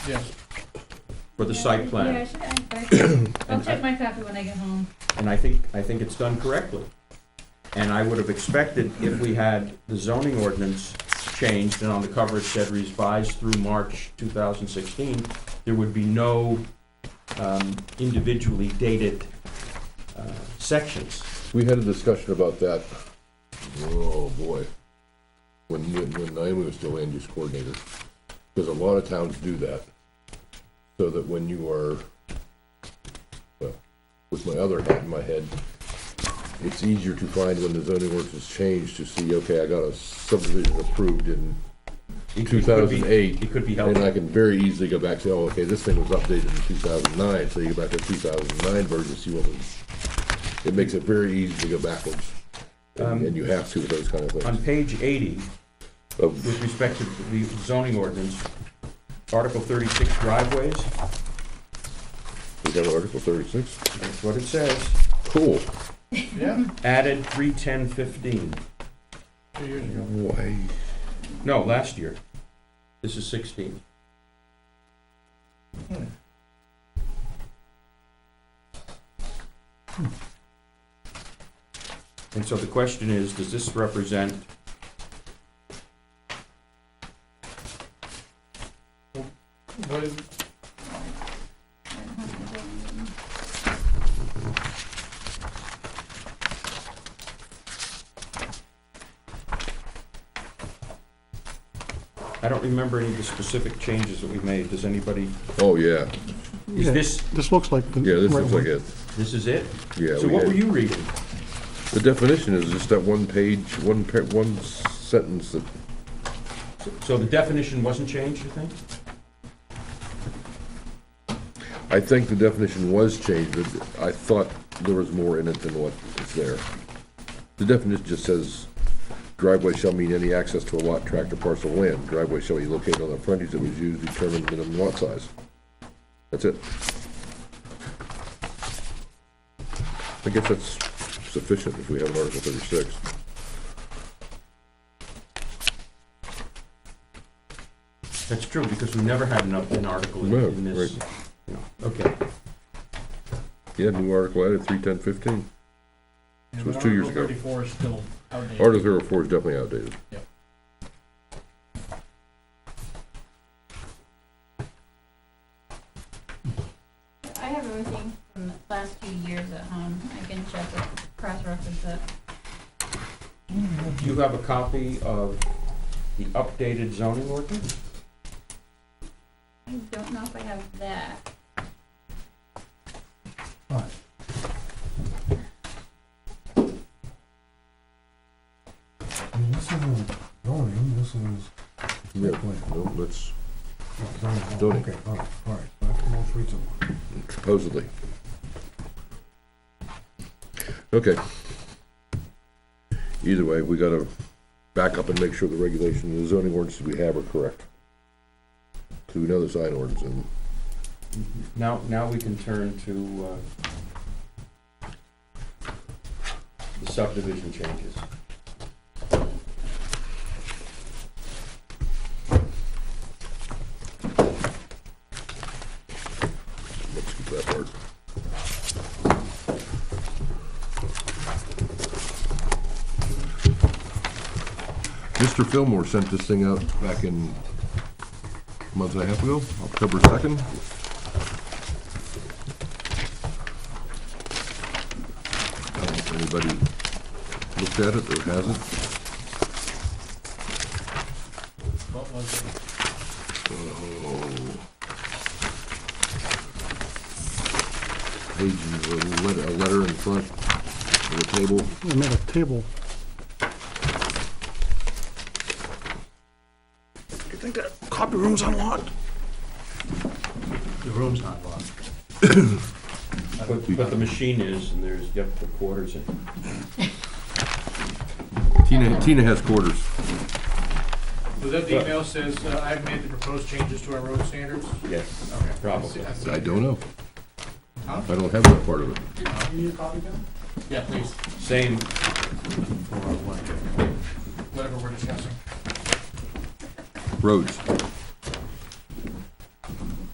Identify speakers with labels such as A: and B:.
A: Yes.
B: for the site
C: Yeah, I
B: plan.
C: should add that. I'll check my copy when I get home.
B: And I think, I think it's done correctly. And I would have expected if we had the zoning ordinance changed and on the cover it said revised through March 2016, there would be no um, individually dated uh, sections.
D: We had a discussion about that, oh, boy, when, when when Naomi was still land use coordinator, because a lot of towns do that, so that when you are, well, with my other hat in my head, it's easier to find when the zoning ordinance is changed to see, okay, I got a subdivision approved in,
B: It could- it could be-
D: 2008,
B: It could be
D: and
B: helpful.
D: I can very easily go back and say, oh, okay, this thing was updated in two thousand nine, so you go back to two thousand nine version, see what was, it makes it very easy to go backwards.
E: Um,
D: And and you have to with those kind of
B: On
D: things. Oh,
B: page 80,
D: Of-
B: with respect to the zoning ordinance, Article 36 driveways,
D: We got Article thirty-six,
B: that's what it says,
D: cool.
A: Yeah,
B: added 31015.
A: two years ago.
D: Why,
B: No, last year. This is Hmm. 16. And so the question is, does this represent,
A: What is,
B: I don't remember any of the specific changes that we made. Does anybody,
D: oh, yeah,
B: is this,
E: This looks like the
D: yeah, this
E: right
D: looks like
E: one.
D: it,
B: this is it?
D: yeah.
B: So
D: we
B: what
D: had-
B: were you reading?
D: The definition is just that one page, one pa, one sentence that,
B: So the definition wasn't changed, you think?
D: I think the definition was changed, but I thought there was more in it than what is there. The definition just says driveway shall mean any access to a lot, tract, or parcel of land. Driveway shall be located on the frontage that was used to determine minimum lot size. That's it. I guess that's sufficient if we have an Article thirty-six.
B: That's true, because we never had an, up- an article in
D: No,
B: in this.
D: right.
B: you know. Okay,
D: Yeah, new article added, three, ten, fifteen.
A: yeah,
D: It was
A: but
D: two years
A: Article
D: ago.
A: thirty-four is still outdated.
D: Article thirty-four is definitely outdated.
C: I have everything from the last few years at home. I can check it, cross-reference it.
B: do you have a copy of the updated zoning ordinance?
C: I don't know if I have that.
E: I mean, This isn't zoning, this is. uh,
D: Yeah,
E: plan.
D: no, that's
E: Zoning, oh,
D: Zoning.
E: Okay, all right, all right, so that's the most recent one.
D: supposedly. Okay. Either way, we gotta back up and make sure the regulation, the zoning ordinances we have are correct. Cause we know the sign ordinance and
B: Now, now we can turn to uh, the subdivision changes.
D: let's keep that part. Mr. Fillmore sent this thing out back in a month and a half ago, October second. I don't know if anybody looked at it or hasn't.
A: What was it?
D: Oh. Page, a letter, a letter in front of the table.
E: We made a table. You think that copy room's unlocked?
A: The room's not locked.
B: But, but the machine is, and there's, yep, the quarters in.
D: Tina, Tina has quarters.
A: Was that the email says, uh, I've made the proposed changes to our road standards?
B: Yes.
A: Okay.
B: Probably.
A: I see- I see.
D: I don't know.
A: Huh?
D: I don't have that part of it.
A: You need a copy, Ben? Yeah, please,
B: Same,
A: whatever we're discussing.
D: Roads.